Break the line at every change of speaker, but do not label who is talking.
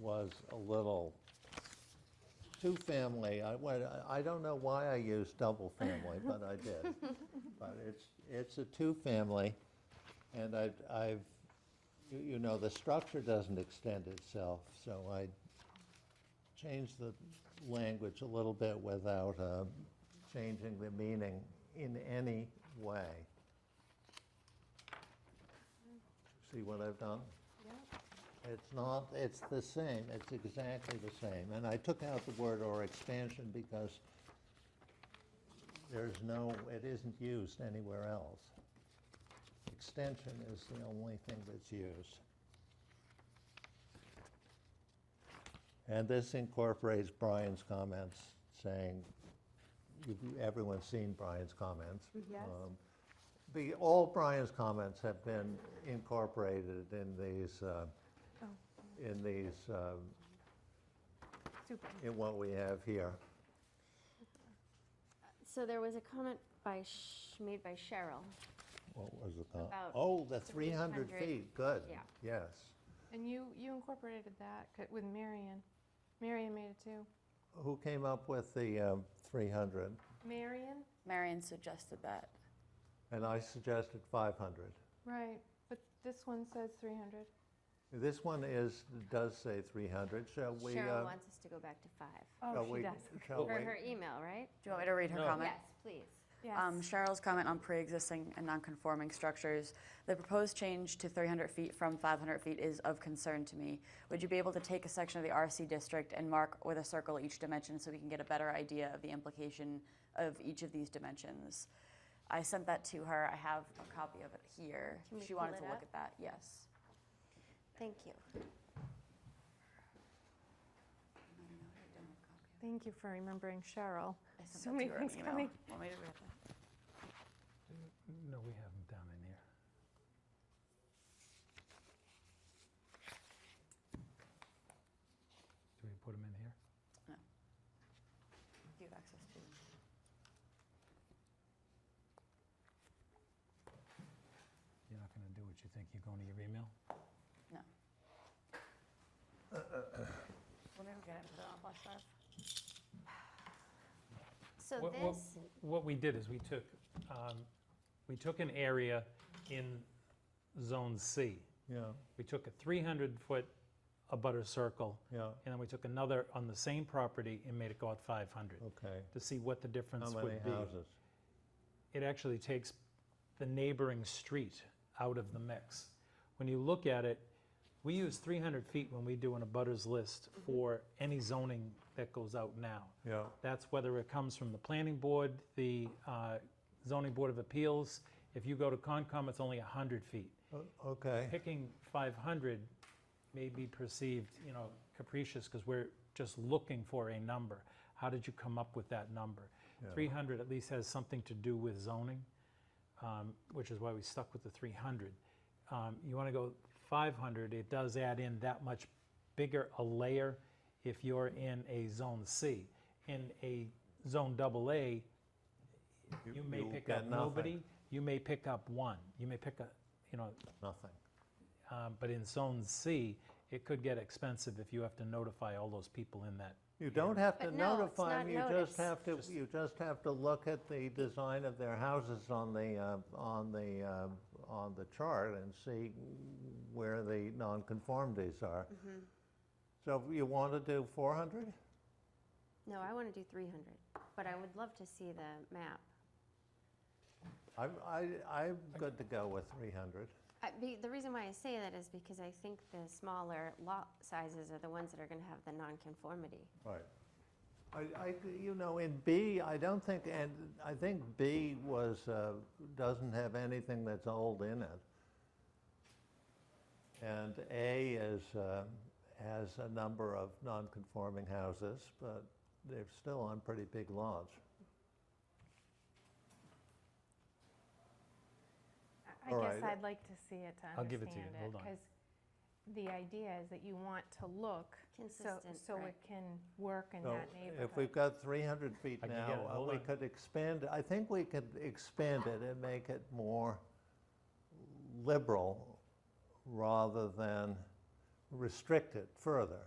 was a little, two-family, I, went- I don't know why I used double-family, but I did. But it's, it's a two-family, and I, I've, you- you know, the structure doesn't extend itself, so I changed the language a little bit without uh, changing the meaning in any way. See what I've done? It's not, it's the same, it's exactly the same. And I took out the word "or expansion" because there's no, it isn't used anywhere else. Extension is the only thing that's used. And this incorporates Brian's comments saying, you've- everyone's seen Brian's comments.
Yes.
Um, The, all Brian's comments have been incorporated in these, uh,
Oh.
in these, um,
Super.
in what we have here.
So there was a comment by, Sh- made by Cheryl.
What was the con-
About
Oh, the 300
300,
feet, good.
yeah.
Yes.
And you, you incorporated that c- with Marion. Marion made it too.
Who came up with the um, 300?
Marion?
Marion suggested that.
And I suggested 500.
Right, but this one says 300.
This one is, does say 300, shall we? uh,
Cheryl wants us to go back to five.
shall
Oh,
we-
she does.
Shall
For
we?
her email, right?
Do you want me to read her
No.
comment?
Yes, please.
Um,
Yes.
Cheryl's comment on pre-existing and non-conforming structures. The proposed change to 300 feet from 500 feet is of concern to me. Would you be able to take a section of the RC district and mark with a circle each dimension so we can get a better idea of the implication of each of these dimensions? I sent that to her. I have a copy of it here.
Can we
She wanted
pull
to
it
look
up?
at that, yes.
Thank you.
Thank you for remembering Cheryl.
I sent
So
that to
many
her in
things
email.
coming.
Want me to read that?
No, we have them down in here. Do we put them in here?
Do you have access to?
You're not going to do what you think, you're going to your email?
No. Let me go get it, put it on a flash drive.
So
What- what-
this,
What we did is we took, um, we took an area in Zone C.
Yeah,
We took a 300-foot abutter circle,
yeah,
and then we took another on the same property and made it go out 500
okay.
to see what the
How
difference
many
would be.
houses?
It actually takes the neighboring street out of the mix. When you look at it, we use 300 feet when we do an abutters list for any zoning that goes out now.
Yeah,
That's whether it comes from the planning board, the uh, zoning board of appeals. If you go to Concom, it's only 100 feet.
O- okay,
Picking 500 may be perceived, you know, capricious because we're just looking for a number. How did you come up with that number? 300 at least has something to do with zoning, um, which is why we stuck with the 300. Um, You want to go 500, it does add in that much bigger a layer if you're in a Zone C. In a Zone double A, you may
you
pick
get
up
nothing.
nobody, you may pick up one, you may pick up, you know,
nothing.
um, But in Zone C, it could get expensive if you have to notify all those people in that.
You don't have to
But no, it's
notify them,
not
you just
notice.
have to, you just have to look at the design of their houses on the, uh, on the, uh, on the chart and see where the nonconformities are.
mm-hmm.
So if you want to do 400?
no, I want to do 300, but I would love to see the map.
I'm, I, I'm good to go with 300.
I- be- The reason why I say that is because I think the smaller lot sizes are the ones that are going to have the nonconformity.
Right. I, I, you know, in B, I don't think, and I think B was, uh, doesn't have anything that's old in it. And A is, uh, has a number of non-conforming houses, but they're still on pretty big lots.
I-
All
I guess
right.
I'd like to see it to
I'll give it to you.
understand it,
Hold on.
because the idea is that you want to look so,
Consistent,
so
right.
it can work in
So
that
If we've
neighborhood.
got 300 feet
I can get
now,
it,
uh,
hold
we
on.
could expand, I think we could expand it and make it more liberal rather than restrict it further.